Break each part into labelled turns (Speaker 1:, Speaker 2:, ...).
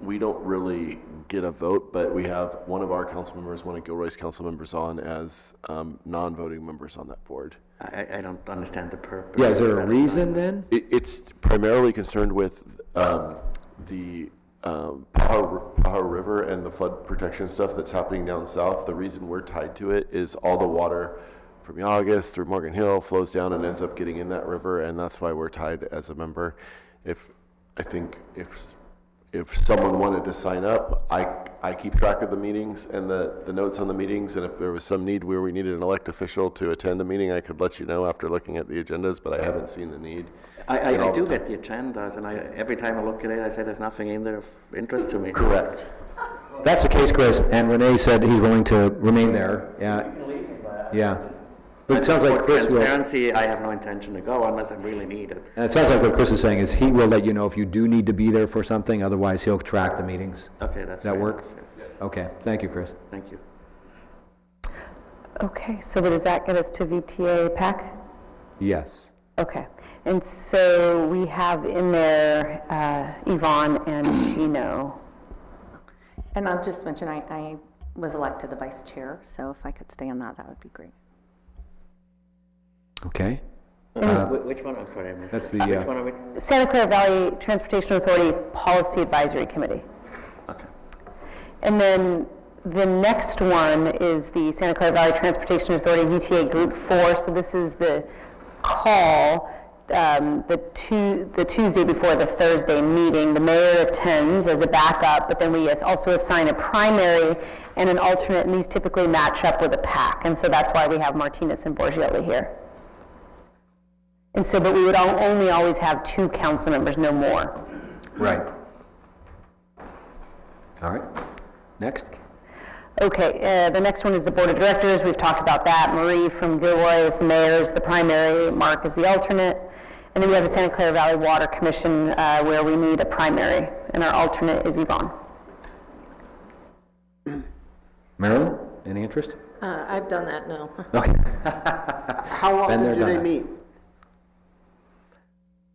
Speaker 1: we don't really get a vote, but we have one of our council members, one of Gilroy's council members on as um, non-voting members on that board.
Speaker 2: I, I don't understand the purpose.
Speaker 3: Yeah, is there
Speaker 2: of
Speaker 3: a
Speaker 2: that
Speaker 3: reason then?
Speaker 1: It, it's primarily concerned with um, the um, Pahar, Pahar River and the flood protection stuff that's happening down south. The reason we're tied to it is all the water from Yaugus through Morgan Hill flows down and ends up getting in that river, and that's why we're tied as a member. If I think if if someone wanted to sign up, I, I keep track of the meetings and the, the notes on the meetings, and if there was some need where we needed an elect official to attend a meeting, I could let you know after looking at the agendas, but I haven't seen the need.
Speaker 2: I,
Speaker 1: And
Speaker 2: I, I
Speaker 1: all
Speaker 2: do
Speaker 1: the
Speaker 2: get the agendas, and I, every time I look at it, I say there's nothing in there of interest to me.
Speaker 1: Correct.
Speaker 3: That's the case, Chris, and Renee said he's willing to remain there, yeah. Yeah. But it sounds like
Speaker 2: For
Speaker 3: Chris will, and
Speaker 2: transparency, I have no intention to go unless I'm really needed.
Speaker 3: it sounds like what Chris is saying is he will let you know if you do need to be there for something, otherwise he'll track the meetings.
Speaker 2: Okay, that's
Speaker 3: Does that
Speaker 2: fair
Speaker 3: work?
Speaker 2: enough, yeah.
Speaker 3: Okay, thank you, Chris.
Speaker 2: Thank you.
Speaker 4: Okay, so does that get us to VTA PAC?
Speaker 3: Yes.
Speaker 4: Okay, and so we have in there uh, Yvonne and Gino.
Speaker 5: And I'll just mention, I, I was elected the vice chair, so if I could stay on that, that would be great.
Speaker 3: Okay.
Speaker 2: Uh, Wh- Which one, I'm sorry, I missed
Speaker 3: Uh, That's
Speaker 2: it.
Speaker 3: the,
Speaker 2: Which
Speaker 3: uh,
Speaker 2: one are we?
Speaker 4: Santa Clara Valley Transportation Authority Policy Advisory Committee.
Speaker 2: Okay.
Speaker 4: And then the next one is the Santa Clara Valley Transportation Authority VTA Group 4. So this is the call, um, the Tu- the Tuesday before the Thursday meeting. The mayor attends as a backup, but then we as- also assign a primary and an alternate, and these typically match up with a pack. And so that's why we have Martinez and Borgioli here. And so, but we would al- only always have two council members, no more.
Speaker 3: Right. All right. Next.
Speaker 4: Okay, uh, the next one is the Board of Directors, we've talked about that. Marie from Gilroy is the mayor, is the primary, Mark is the alternate. And then we have the Santa Clara Valley Water Commission, uh, where we need a primary, and our alternate is Yvonne.
Speaker 3: Marilyn, any interest?
Speaker 6: Uh, I've done that, no.
Speaker 3: Okay.
Speaker 7: How often
Speaker 3: there,
Speaker 7: do they
Speaker 3: done that.
Speaker 7: meet?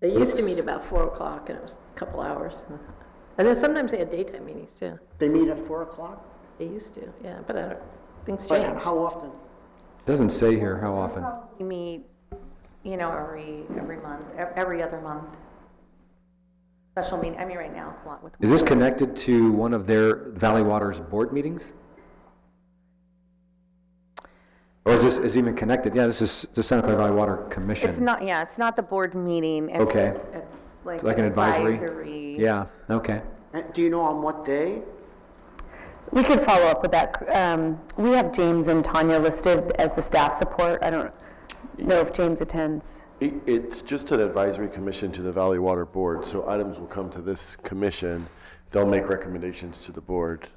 Speaker 6: They used to meet about four o'clock and it was a couple hours. And then sometimes they had daytime meetings too.
Speaker 7: They meet at four o'clock?
Speaker 6: They used to, yeah, but I don't, things
Speaker 7: But
Speaker 6: change.
Speaker 7: How often?
Speaker 3: Doesn't say here how often.
Speaker 5: We meet, you know, every, every month, e- every other month. Special meeting, I mean, right now, it's a lot with.
Speaker 3: Is this connected to one of their Valley Waters board meetings? Or is this, is even connected? Yeah, this is the Santa Clara Valley Water Commission.
Speaker 5: It's not, yeah, it's not the board meeting. it's-
Speaker 3: Okay.
Speaker 5: It's like.
Speaker 3: It's like an advisory?
Speaker 5: advisory.
Speaker 3: Yeah, okay.
Speaker 7: Uh, Do you know on what day?
Speaker 4: We could follow up with that. Um, We have James and Tanya listed as the staff support. I don't know if James attends.
Speaker 1: It- It's just an advisory commission to the Valley Water Board, so items will come to this commission. They'll make recommendations to the board.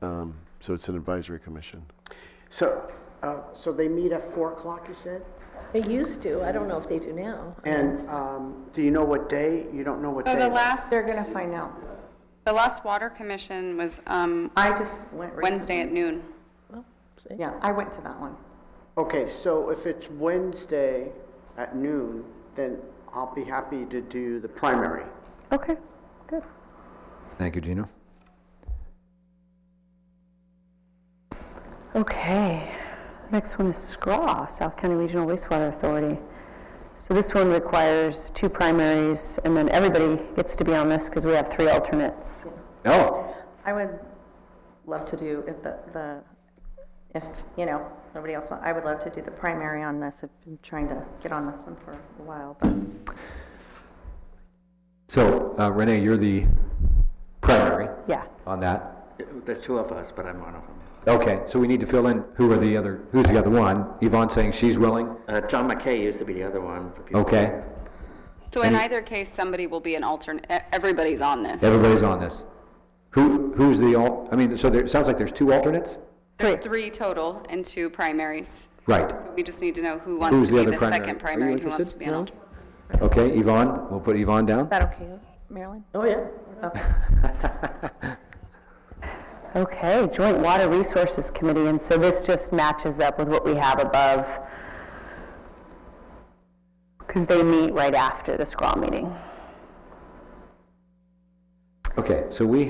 Speaker 1: Um, So it's an advisory commission.
Speaker 7: So, uh, so they meet at four o'clock, you said?
Speaker 6: They used to, I don't know if they do now.
Speaker 7: And um, do you know what day? You don't know what
Speaker 8: So
Speaker 7: day?
Speaker 8: the last,
Speaker 5: They're going to find out.
Speaker 8: the last water commission was um,
Speaker 5: I just went. recently.
Speaker 8: Wednesday at noon.
Speaker 6: Well, see.
Speaker 5: Yeah, I went to that one.
Speaker 7: Okay, so if it's Wednesday at noon, then I'll be happy to do the primary.
Speaker 4: Okay, good.
Speaker 3: Thank you, Gino.
Speaker 4: Okay, next one is SCRAW, South County Regional Wastewater Authority. So this one requires two primaries, and then everybody gets to be on this because we have three alternates.
Speaker 3: Oh,
Speaker 5: I would love to do, if the, the, if, you know, nobody else, wa- I would love to do the primary on this. I've been trying to get on this one for a while, but
Speaker 3: so uh, Renee, you're the primary
Speaker 4: Yeah,
Speaker 3: on that.
Speaker 2: There's two of us, but I'm one of them.
Speaker 3: Okay, so we need to fill in who are the other, who's the other one? Yvonne's saying she's willing?
Speaker 2: Uh, John McKay used to be the other one. but before-
Speaker 3: Okay,
Speaker 8: So in either case, somebody will be an alternate, everybody's on this.
Speaker 3: everybody's on this. Who, who's the, al- I mean, so there, it sounds like there's two alternates?
Speaker 8: There's three total and two primaries.
Speaker 3: Right.
Speaker 8: So we just need to know who
Speaker 3: Who's
Speaker 8: wants
Speaker 3: the
Speaker 8: to be
Speaker 3: other
Speaker 8: the
Speaker 3: primary?
Speaker 8: second
Speaker 3: Are you
Speaker 8: primary and who wants
Speaker 3: interested?
Speaker 8: to be an
Speaker 3: No?
Speaker 8: alternate.
Speaker 3: Okay, Yvonne, we'll put Yvonne down.
Speaker 5: is that okay, Marilyn?
Speaker 6: Oh, yeah.
Speaker 4: okay, Joint Water Resources Committee, and so this just matches up with what we have above. Because they meet right after the SCRAW meeting.
Speaker 3: Okay, so we